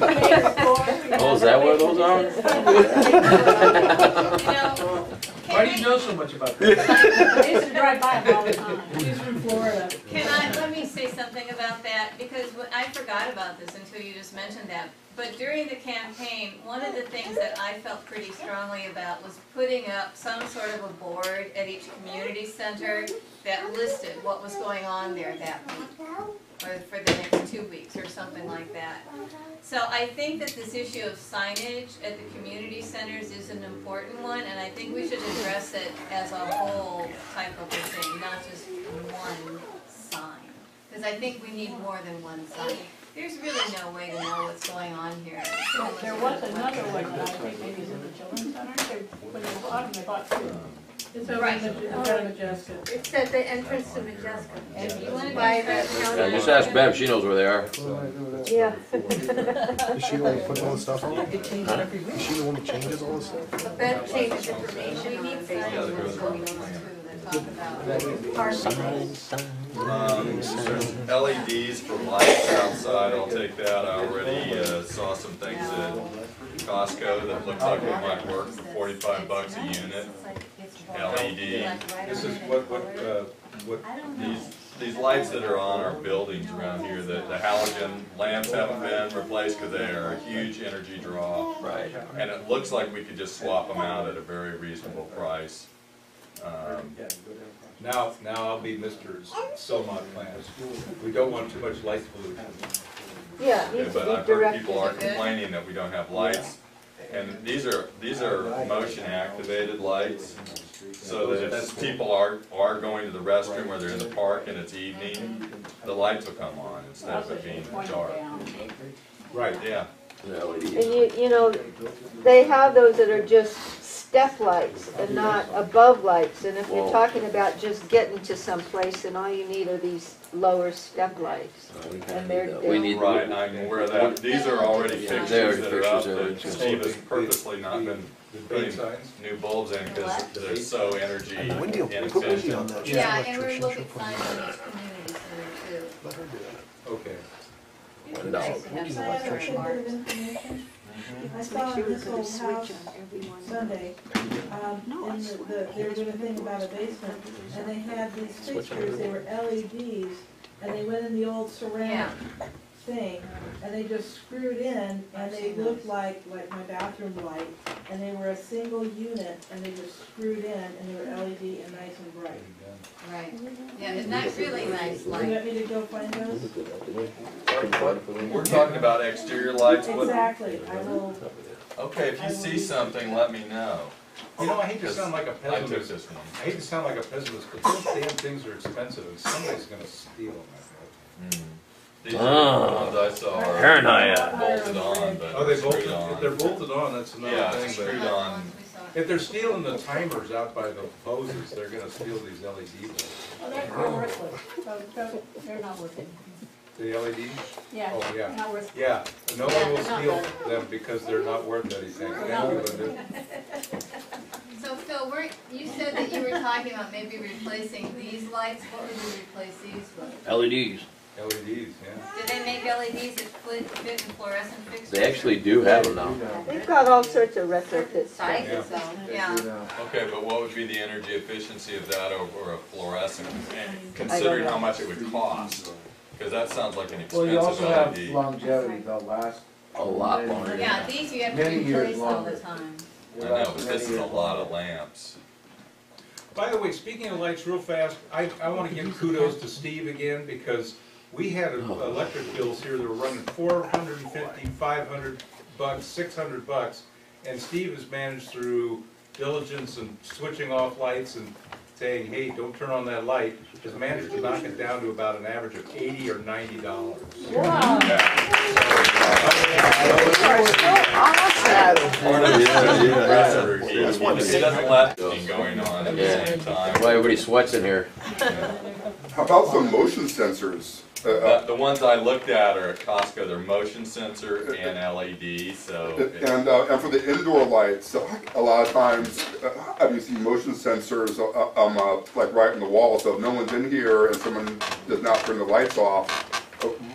Oh, is that where those are? Why do you know so much about that? I used to drive by them all the time. She's from Florida. Can I, let me say something about that, because wh- I forgot about this until you just mentioned that. But during the campaign, one of the things that I felt pretty strongly about was putting up some sort of a board at each community center that listed what was going on there that week, or for the next two weeks, or something like that. So I think that this issue of signage at the community centers is an important one, and I think we should address it as a whole type of a thing, not just one sign. Because I think we need more than one sign. There's really no way to know what's going on here. There was another one that I think maybe is in the children's center, they, when they bought them, they bought two. It's over Right. in the, in front of Majestic. It's at the entrance to Majeska. If you want to By the Yeah, county. just ask Bev, she knows where they are. Yeah. Is she the one who puts all the stuff on? Is she the one who changes all this stuff? But that changes We information on need signs Facebook. that's going on too, that talk about. Um, there's LEDs for lights outside, I'll take that, I already uh, saw some things at Costco that looks like they might work for forty-five bucks a unit. E LED. This is what, what, uh, what, these, these lights that are on our buildings around here, the, the halogen lamps haven't been replaced because they are a huge energy draw. Right. And it looks like we could just swap them out at a very reasonable price. Um, Now, now I'll be Mr. Soma Plant. We don't want too much light pollution. Yeah, it Yeah, needs but to I've be heard people directed. are complaining that we don't have lights, and these are, these are motion-activated lights, so that if people are, are going to the restroom, or they're in the park and it's evening, the lights will come on instead of Also, it being she's pointing dark. down. Right. Yeah, The E LEDs. And you, you know, they have those that are just step lights and not above lights. And if you're Whoa. talking about just getting to someplace, then all you need are these lower step lights. And they're, We need- they're, right, and I'm aware of that, these are already Yeah, fixtures they're already that are up, fixtures, that they're- Steve has purposely not been The big putting signs? new bulbs in, because they're so energy Wendy, put Wendy on inefficient. that. She's an Yeah, and we're electrician. looking She'll put fine it on on. those communities there too. Let her do that. Okay. One dollar. Have signs that are marked. Mm-hmm. I saw in this old house Sunday, um, and the, the- they were doing a thing about a basement, and they had these fixtures, they were LEDs, and they went in the old ceramic thing, and they just screwed in, and they looked like, like my bathroom light, and they were a single unit, and they just screwed in, and they were LED and nice and bright. Right, yeah, and that's really nice Do you light. want me to go find those? We're talking about exterior lights, what, Exactly, I will, okay, if you see something, let me know. You know, I hate to sound like a I took pessimist. this one. I hate to sound like a pessimist, but those damn things are expensive and somebody's gonna steal them. Mm. These are the ones I saw are Paranoia. bolted on, but Oh, they bolted, screwed if they're on. bolted on, that's Yeah, another uh, it's thing, screwed but on. if they're stealing the timers out by the hoses, they're gonna steal these E LED ones. Well, they're, they're worthless. Oh, So, so they're not worth it. The LEDs? Yeah, Oh, yeah. not worth Yeah, no Yeah, one will they're not steal them because they're not worth anything. Thank you, Linda. So Phil, we're, you said that you were talking about maybe replacing these lights, what would you replace these with? LEDs. LEDs, E yeah. Do they make E LEDs that fit fit in fluorescent fixtures? They actually do have them now. they've got all sorts of retrofit I stuff. think so. Yeah, Okay, but what would be the energy efficiency of that over a fluorescent, and considering how much it would cost? Cause that sounds like an Well, you expensive also have LED. longevity, they'll last. A lot longer. yeah, these you have to Many years replace all the longer. time. I know, but this is a lot of lamps. By the way, speaking of lights, real fast, I, I wanna give kudos to Steve again, because we had electric bills here that were running 450, 500 bucks, six hundred bucks, and Steve has managed through diligence and switching off lights and saying, hey, don't turn on that light, has managed to knock it down to about an average of eighty or ninety dollars. Uh, Wow, Part of the energy compressor routine, That's why they it say- doesn't let anything going on at the Yeah. same time. Why everybody sweats in here? How about the motion sensors? Uh, The, uh, the ones I looked at are at Costco, they're motion sensor and LED, so it's- And, uh, and for the indoor lights, uh, a lot of times, uh, I've used motion sensors, uh, um, uh, like right in the wall, so if no one's in here and someone does not turn the lights off, uh,